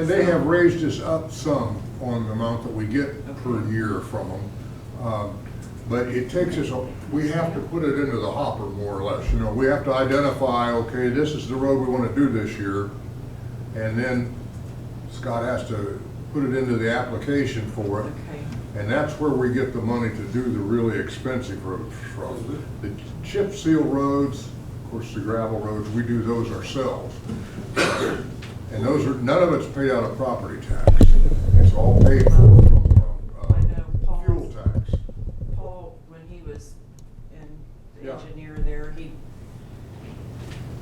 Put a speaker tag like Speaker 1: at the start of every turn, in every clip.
Speaker 1: And they have raised us up some on the amount that we get per year from them. Um, But it takes us, a- we have to put it into the hopper more or less, you know, we have to identify, okay, this is the road we want to do this year. And then Scott has to put it into the application for it.
Speaker 2: Okay,
Speaker 1: And that's where we get the money to do the really expensive roads from. The chip seal roads, of course, the gravel roads, we do those ourselves. And those are, none of it's paid out of property tax. It's all paid for from,
Speaker 2: I know,
Speaker 1: uh,
Speaker 2: Paul.
Speaker 1: fuel tax.
Speaker 2: Paul, when he was in the
Speaker 1: Yeah.
Speaker 2: engineer there, he,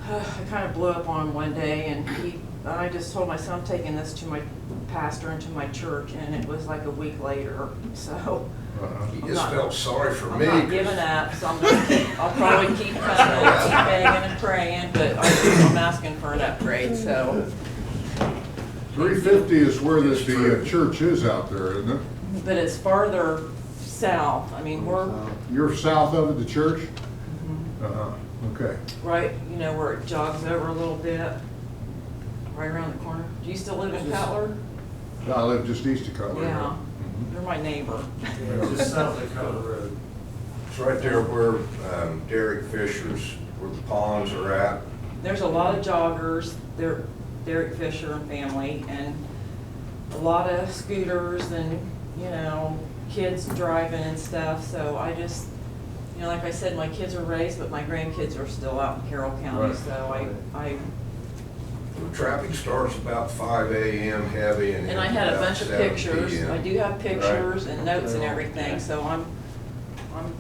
Speaker 2: I kind of blew up on him one day and he, I just told my son, I'm taking this to my pastor and to my church and it was like a week later, so.
Speaker 1: Uh-huh.
Speaker 3: He just felt sorry for
Speaker 2: I'm
Speaker 3: me.
Speaker 2: not giving up, so I'm gonna keep, I'll probably keep coming, and keep begging and praying, but I'm I'm asking for an upgrade, so.
Speaker 1: Three fifty is where this, the uh, church is out there, isn't it?
Speaker 2: But it's farther south, I mean, we're
Speaker 1: You're south of it, the church?
Speaker 2: Mm-hmm.
Speaker 1: Uh-huh, okay.
Speaker 2: right, you know, where it jogs over a little bit, right around the corner. Do you still live in Cutler?
Speaker 1: I live just east of Cutler. Mm-hmm.
Speaker 2: Yeah, you're my neighbor.
Speaker 3: Yeah,
Speaker 4: Just south of Cutler Road.
Speaker 3: It's right there where um, Derek Fisher's, where the ponds are at.
Speaker 2: There's a lot of joggers, there, Derek Fisher and family, and a lot of scooters and, you know, kids driving and stuff, so I just, you know, like I said, my kids are raised, but my grandkids are still out in Carroll County,
Speaker 1: Right.
Speaker 2: so I, I
Speaker 3: The traffic starts about five AM heavy and.
Speaker 2: And I had a
Speaker 3: about
Speaker 2: bunch of
Speaker 3: 7
Speaker 2: pictures,
Speaker 3: PM.
Speaker 2: I do have pictures and notes and everything, so I'm, I'm,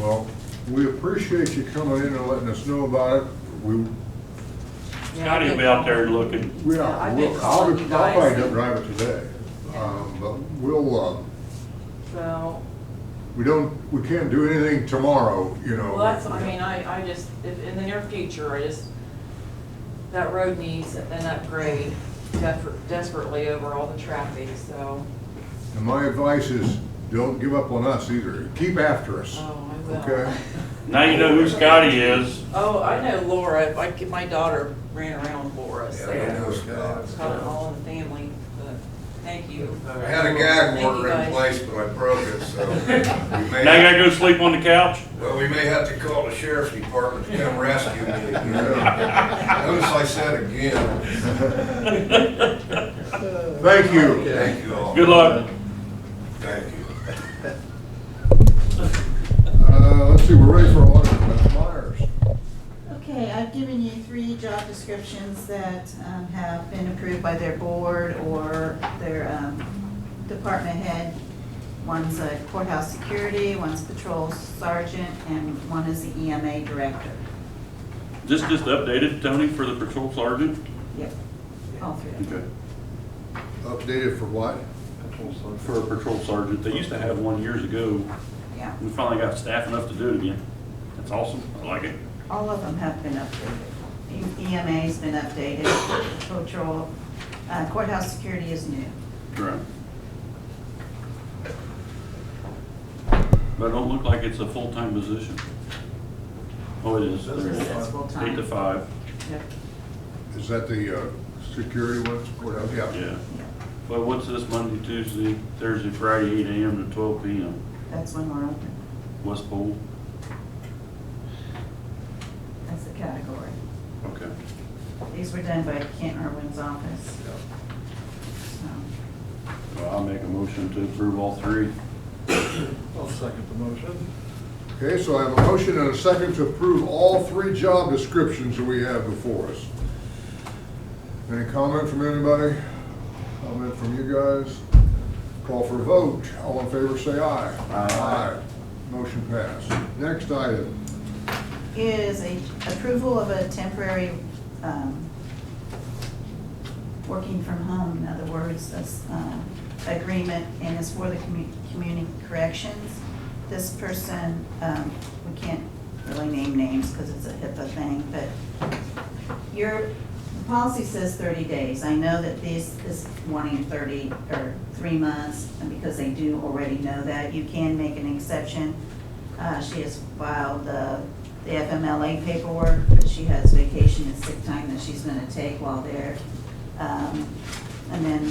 Speaker 1: Well, we appreciate you coming in and letting us know about it. We,
Speaker 5: Scotty will be out there looking.
Speaker 1: we
Speaker 2: Yeah,
Speaker 1: are,
Speaker 2: I've
Speaker 1: we'll-
Speaker 2: been
Speaker 1: I'll,
Speaker 2: calling you
Speaker 1: be- I'll probably
Speaker 2: guys.
Speaker 1: don't drive it today. Um, but we'll, um,
Speaker 2: so,
Speaker 1: we don't, we can't do anything tomorrow, you know.
Speaker 2: well, that's, I mean, I, I just, if, in the near future, I just, that road needs an upgrade desper- desperately over all the traffic, so,
Speaker 1: And my advice is, don't give up on us either. Keep after us.
Speaker 2: oh, I will.
Speaker 1: Okay?
Speaker 5: Now you know who Scotty is.
Speaker 2: Oh, I know Laura, my, my daughter ran around with Laura,
Speaker 3: Yeah, I
Speaker 2: so,
Speaker 3: know it's bad.
Speaker 2: it's kind of all in the family, but, thank you.
Speaker 3: I had a gag
Speaker 2: Thank you,
Speaker 3: order in
Speaker 2: guys.
Speaker 3: place, but I broke it, so we
Speaker 5: Now you
Speaker 3: may,
Speaker 5: gotta go sleep on the couch.
Speaker 3: well, we may have to call the sheriff's department to come rescue me. again. Notice I said again,
Speaker 1: Thank you.
Speaker 3: thank you all.
Speaker 5: Good luck.
Speaker 3: Thank you.
Speaker 1: Uh, let's see, we're ready for audit. Ms. Myers.
Speaker 6: Okay, I've given you three job descriptions that um, have been approved by their board or their um, department head. One's a courthouse security, one's patrol sergeant, and one is the EMA director.
Speaker 5: Just, just updated, Tony, for the patrol sergeant.
Speaker 6: Yep, all three. of them.
Speaker 5: Okay.
Speaker 1: Updated for what?
Speaker 5: For a patrol sergeant. They used to have one years ago.
Speaker 6: Yeah,
Speaker 5: We finally got staff enough to do it again. That's awesome. I like it.
Speaker 6: all of them have been updated. E- EMA's been updated, patrol, uh, courthouse security is new.
Speaker 5: Right. But it don't look like it's a full-time position. Oh, it is. There it is.
Speaker 6: It's full-time.
Speaker 5: Eight to five,
Speaker 6: Yep.
Speaker 1: Is that the, uh, security one? Courthouse?
Speaker 5: yeah.
Speaker 6: yep.
Speaker 5: Well, what's this Monday, Tuesday, Thursday, Friday, eight AM to twelve PM,
Speaker 6: That's when we're open.
Speaker 5: West Pole?
Speaker 6: That's the category.
Speaker 5: Okay.
Speaker 6: These were done by Kent Irwin's office. Um, So,
Speaker 5: Well, I'll make a motion to approve all three.
Speaker 4: I'll second the motion.
Speaker 1: Okay, so I have a motion and a second to approve all three job descriptions that we have before us. Any comment from anybody? Comment from you guys? Call for a vote. All in favor, say aye. Aye. Motion passed. Next item.
Speaker 6: Is a approval of a temporary, um, working from home, in other words, this, um, agreement, and it's for the commu- community corrections. This person, um, we can't really name names because it's a HIPAA thing, but your the policy says thirty days. I know that this is wanting thirty or three months, and because they do already know that, you can make an exception. Uh, she has filed the, the FMLA paperwork, but she has vacation and sick time that she's gonna take while there. Um, and then